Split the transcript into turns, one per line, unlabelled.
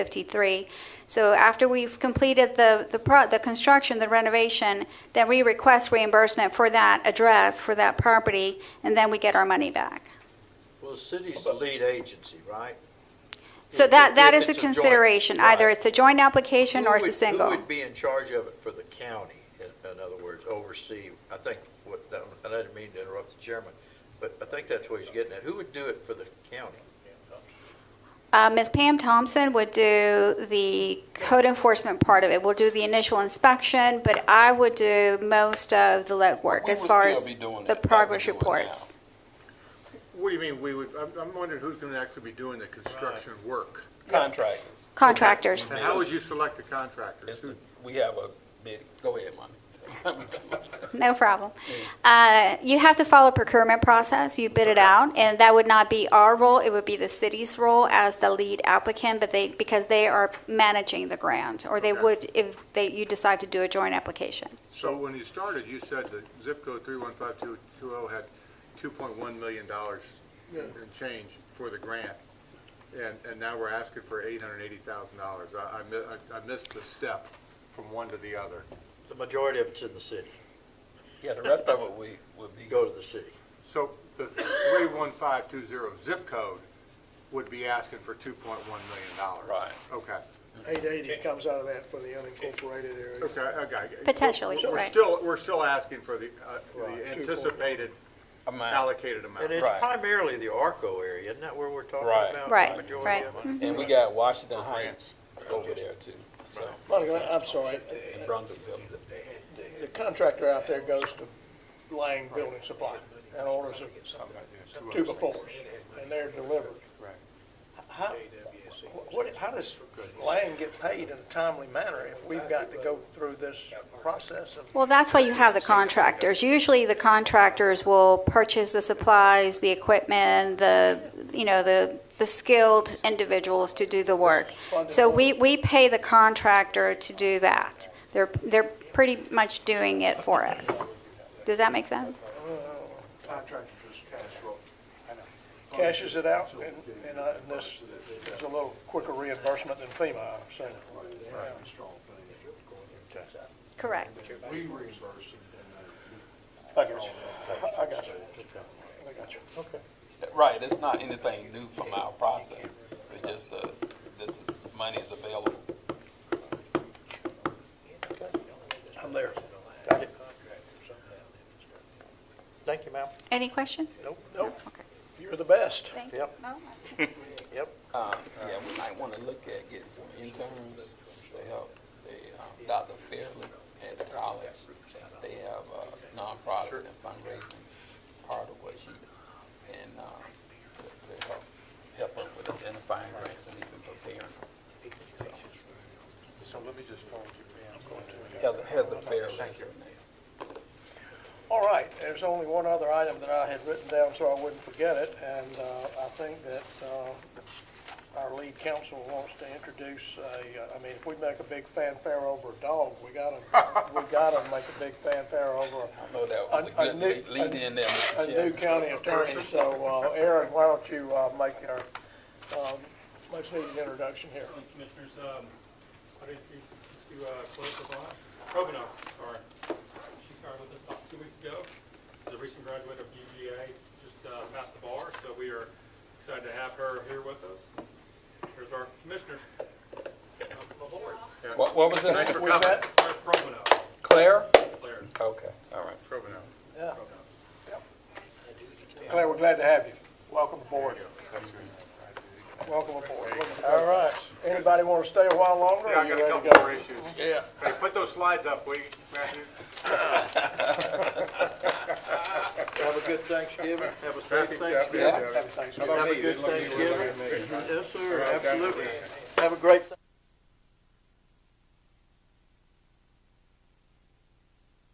53. So after we've completed the, the pro, the construction, the renovation, then we request reimbursement for that address, for that property, and then we get our money back.
Well, the city's the lead agency, right?
So
If-
that,
if
that is
it's
a
a joint-
consideration, either
right.
it's a joint application or
Who
it's a
would- Who
single.
would be in charge of it for the county, in- in other words, oversee, I think, what, that- and I didn't mean to interrupt the chairman, but I think that's what he's getting at. Who would do it for the county?
Uh, Ms. Pam Thompson would do the code enforcement part of it, we'll do the initial inspection, but I would do most of the legwork
We
as
would
far
still
as
be doing
the
it like we're
progress
doing
reports.
What do you mean, we would, I'm, I'm wondering who's gonna actually be doing the construction work?
now. Contractors.
Contractors.
And how would you select the contractors?
It's
Who-
a- We have a bid, go ahead, Monty.
No problem. Uh, You have to follow procurement process, you bid it out, and that would not be our role, it would be the city's role as the lead applicant, but they, because they are managing the grant, or they
Okay.
would if they, you decide to do a joint application.
So when you started, you said that zip code three one five two two oh had two point one million dollars and change for the grant. And, and now we're asking for eight hundred and eighty thousand dollars. I, I mi- I, I missed the step from one to the other.
The majority of it's in the city.
Yeah, the rest of it we, would be,
You go to the city.
So the three one five two zero zip code would be asking for two point one million dollars.
Right.
Okay,
Eight eighty comes out of that for the unincorporated area.
okay, okay.
Potentially,
We're- We're
right.
still, we're still asking for the, uh, the anticipated
amount.
allocated amount.
And it's
Right.
primarily the ARCO area, isn't that where we're talking
Right.
about? the
Right,
majority
right. Mm-hmm.
of it?
And we got Washington Heights over there too, so,
Monica, I'm sorry,
in Brunswickville.
the contractor out there goes to Lang Building Supply and orders a tube of fours, and they're delivered. How, wh- what, how does Lang get paid in a timely manner if we've got to go through this process of?
Well, that's why you have the contractors. Usually the contractors will purchase the supplies, the equipment, the, you know, the, the skilled individuals to do the work. So we, we pay the contractor to do that. They're, they're pretty much doing it for us. Does that make sense?
Contractor just cash roll. Cashes it out, and, and uh, and this is a little quicker reimbursement than FEMA, I'm assuming. Okay.
Correct.
We reimburse I got you. I got you. I got you. Okay.
Right, it's not anything new from our process, it's just, uh, this is, money is available.
I'm there.
Thank you, ma'am.
Any questions?
Nope, nope.
Okay.
You're the best.
Thank you.
Yep.
No?
Uh, yeah, we might wanna look at getting some interns to help, they, uh, Dr. Fairley at the college, they have a nonprofit and fundraising part of what she, and, uh, to- to help, help her with identifying grants and even preparing.
So let me just phone you.
Heather, Heather Fairley is her name.
All right, there's only one other item that I had written down so I wouldn't forget it, and uh, I think that uh, our lead counsel wants to introduce a, uh, I mean, if we make a big fanfare over a dog, we gotta, we gotta make a big fanfare over a
I know that was a
A- a
good
new-
lead- lead in there,
a
Mr.
new
Chairman.
county attorney, so, uh, Aaron, why don't you uh, make our um, much needed introduction here?
Thank you, Commissioners, um, I'd introduce you to, uh, Chloe Savant, Provenor, sorry. She started with us about two weeks ago. She's a recent graduate of UGA, just, uh, passed the bar, so we are excited to have her here with us. Here's our commissioners. The Lord,
What, what was that?
We met,
Provenor,
Claire?
Claire.
Okay, all right.
yeah. Claire, we're glad to have you. Welcome aboard. Welcome aboard. All right. Anybody want to stay a while longer? or
Yeah, I
you
got a
ready to
couple
go?
more issues. Yeah. Hey, put those slides up, will you, Matthew?
Have a good Thanksgiving, have a safe Thanksgiving.
Yeah, yeah, yeah.
Everything's-
Have a good Thanksgiving. Yes, sir, absolutely. Have a great